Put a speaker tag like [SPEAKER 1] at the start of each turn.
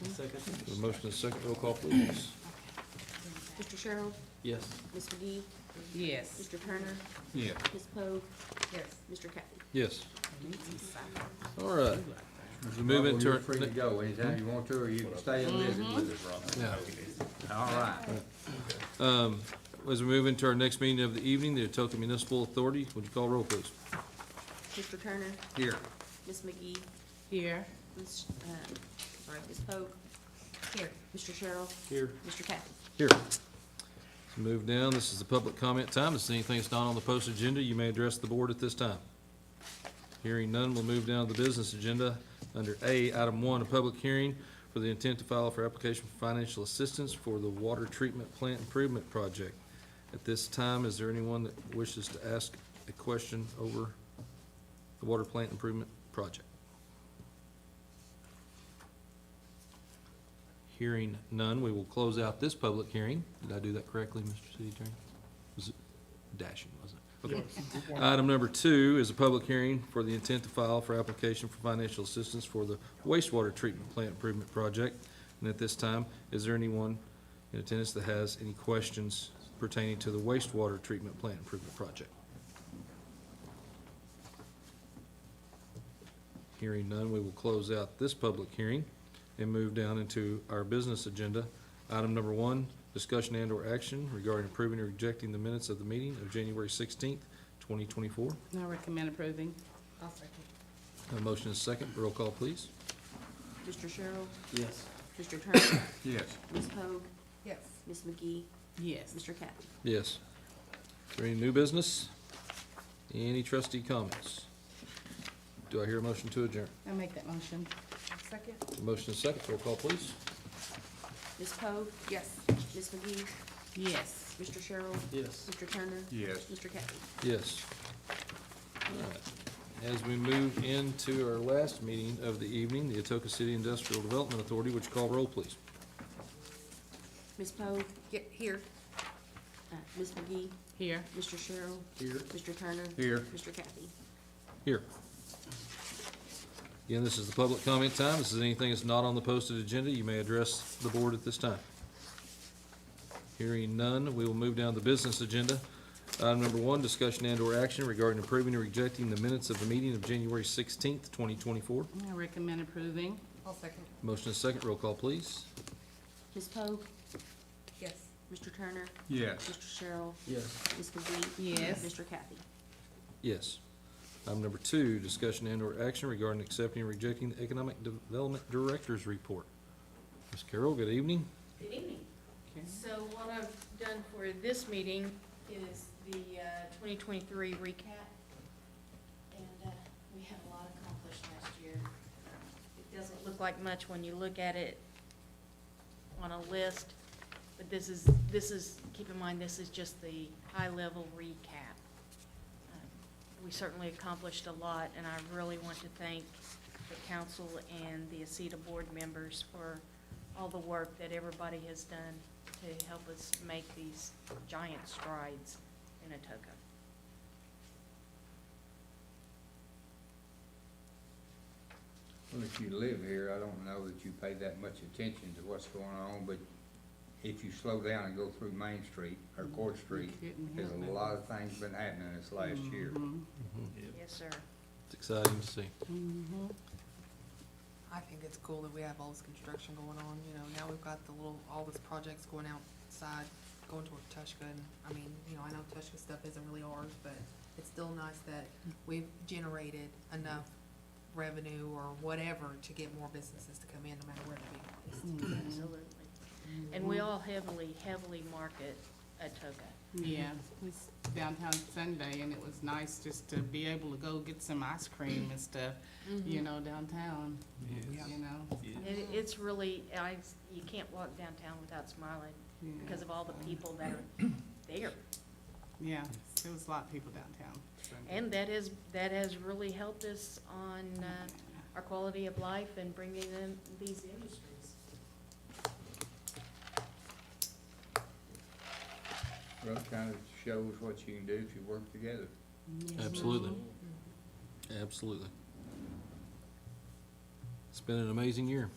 [SPEAKER 1] Motion.
[SPEAKER 2] Second?
[SPEAKER 3] A motion and a second, roll call please.
[SPEAKER 1] Mr. Sherrill?
[SPEAKER 2] Yes.
[SPEAKER 1] Ms. McGee?
[SPEAKER 4] Yes.
[SPEAKER 1] Mr. Turner?
[SPEAKER 3] Yeah.
[SPEAKER 1] Ms. Poe?
[SPEAKER 4] Yes.
[SPEAKER 1] Mr. Cathy?
[SPEAKER 3] Yes, all right. As we move
[SPEAKER 5] Well,
[SPEAKER 3] into,
[SPEAKER 5] You're
[SPEAKER 3] our
[SPEAKER 5] free to
[SPEAKER 3] ne-
[SPEAKER 5] go anytime you want to, or you can stay and visit with us.
[SPEAKER 3] yeah.
[SPEAKER 5] All right.
[SPEAKER 3] Um, as we move into our next meeting of the evening, the Otoka Municipal Authority, would you call roll please?
[SPEAKER 1] Mr. Turner?
[SPEAKER 5] Here.
[SPEAKER 1] Ms. McGee?
[SPEAKER 4] Here.
[SPEAKER 1] Ms., uh, sorry, Ms. Poe?
[SPEAKER 4] Here.
[SPEAKER 1] Mr. Sherrill?
[SPEAKER 2] Here.
[SPEAKER 1] Mr. Cathy?
[SPEAKER 3] Here. Move down, this is the public comment time, if there's anything that's not on the post agenda, you may address the board at this time. Hearing none, we'll move down to the business agenda, under A, item one, a public hearing for the intent to file for application for financial assistance for the water treatment plant improvement project. At this time, is there anyone that wishes to ask a question over the water plant improvement project? Hearing none, we will close out this public hearing. Did I do that correctly, Mr. City Attorney? Was it dashing, wasn't it? Okay. Item number two is a public hearing for the intent to file for application for financial assistance for the wastewater treatment plant improvement project. And at this time, is there anyone in attendance that has any questions pertaining to the wastewater treatment plant improvement project? Hearing none, we will close out this public hearing and move down into our business agenda. Item number one, discussion and/or action regarding approving or rejecting the minutes of the meeting of January sixteenth, twenty twenty-four.
[SPEAKER 4] I recommend approving. I'll second.
[SPEAKER 3] A motion is second, roll call please.
[SPEAKER 1] Mr. Sherrill?
[SPEAKER 2] Yes.
[SPEAKER 1] Mr. Turner?
[SPEAKER 5] Yes.
[SPEAKER 1] Ms. Poe?
[SPEAKER 4] Yes.
[SPEAKER 1] Ms. McGee?
[SPEAKER 4] Yes.
[SPEAKER 1] Mr. Cathy?
[SPEAKER 3] Yes. Is there any new business? Any trustee comments? Do I hear a motion to adjourn?
[SPEAKER 4] I make that motion. Second?
[SPEAKER 3] A motion is second, roll call please.
[SPEAKER 1] Ms. Poe?
[SPEAKER 4] Yes.
[SPEAKER 1] Ms. McGee?
[SPEAKER 4] Yes.
[SPEAKER 1] Mr. Sherrill?
[SPEAKER 2] Yes.
[SPEAKER 1] Mr. Turner?
[SPEAKER 5] Yes.
[SPEAKER 1] Mr. Cathy?
[SPEAKER 3] Yes. All right. As we move into our last meeting of the evening, the Atoka City Industrial Development Authority, would you call roll, please?
[SPEAKER 1] Ms. Poe? Get here. Uh, Ms. McGee?
[SPEAKER 4] Here.
[SPEAKER 1] Mr. Sherrill?
[SPEAKER 2] Here.
[SPEAKER 1] Mr. Turner?
[SPEAKER 5] Here.
[SPEAKER 1] Mr. Cathy?
[SPEAKER 3] Here. Again, this is the public comment time. This is anything that's not on the posted agenda. You may address the board at this time. Hearing none, we will move down to the business agenda. Item number one, discussion and/or action regarding approving or rejecting the minutes of the meeting of January sixteenth, twenty twenty-four.
[SPEAKER 4] I recommend approving. I'll second.
[SPEAKER 3] Motion is second. Roll call, please.
[SPEAKER 1] Ms. Poe?
[SPEAKER 4] Yes.
[SPEAKER 1] Mr. Turner?
[SPEAKER 5] Yes.
[SPEAKER 1] Mr. Sherrill?
[SPEAKER 2] Yes.
[SPEAKER 1] Ms. McGee?
[SPEAKER 4] Yes.
[SPEAKER 1] Mr. Cathy?
[SPEAKER 3] Yes. Item number two, discussion and/or action regarding accepting or rejecting the Economic Development Director's Report. Ms. Carroll, good evening.
[SPEAKER 6] Good evening.
[SPEAKER 4] Okay.
[SPEAKER 6] So what I've done for this meeting is the uh, 2023 recap. And uh, we had a lot accomplished last year. It doesn't look like much when you look at it on a list, but this is, this is, keep in mind, this is just the high-level recap. Uh, We certainly accomplished a lot, and I really want to thank the council and the ACETA board members for all the work that everybody has done to help us make these giant strides in Atoka.
[SPEAKER 5] Well, if you live here, I don't know that you pay that much attention to what's going on, but if you slow down and go through Main Street or Court Street,
[SPEAKER 4] Couldn't
[SPEAKER 5] there's
[SPEAKER 4] help it.
[SPEAKER 5] a lot of things been happening this last year.
[SPEAKER 4] Mm-hmm.
[SPEAKER 6] Yes, sir.
[SPEAKER 3] It's exciting to see.
[SPEAKER 4] Mhm.
[SPEAKER 7] I think it's cool that we have all this construction going on, you know, now we've got the little, all this projects going outside, going toward Tushka, and, I mean, you know, I know Tushka stuff isn't really ours, but it's still nice that we've generated enough revenue or whatever to get more businesses to come in, no matter where they be.
[SPEAKER 6] Absolutely. And we all heavily, heavily market Atoka.
[SPEAKER 4] Yeah, we was downtown Sunday, and it was nice just to be able to go get some ice cream and stuff, you know, downtown, you know?
[SPEAKER 6] It, it's really, I, you can't walk downtown without smiling
[SPEAKER 4] Yeah.
[SPEAKER 6] because of all the people that are there.
[SPEAKER 4] Yeah, there was a lot of people downtown. Sunday.
[SPEAKER 6] And that is, that has really helped us on, uh, our quality of life and bringing in these industries.
[SPEAKER 5] Well, it kind of shows what you can do if you work together.
[SPEAKER 3] Absolutely.
[SPEAKER 1] Mm-hmm.
[SPEAKER 3] Absolutely. It's been an amazing year.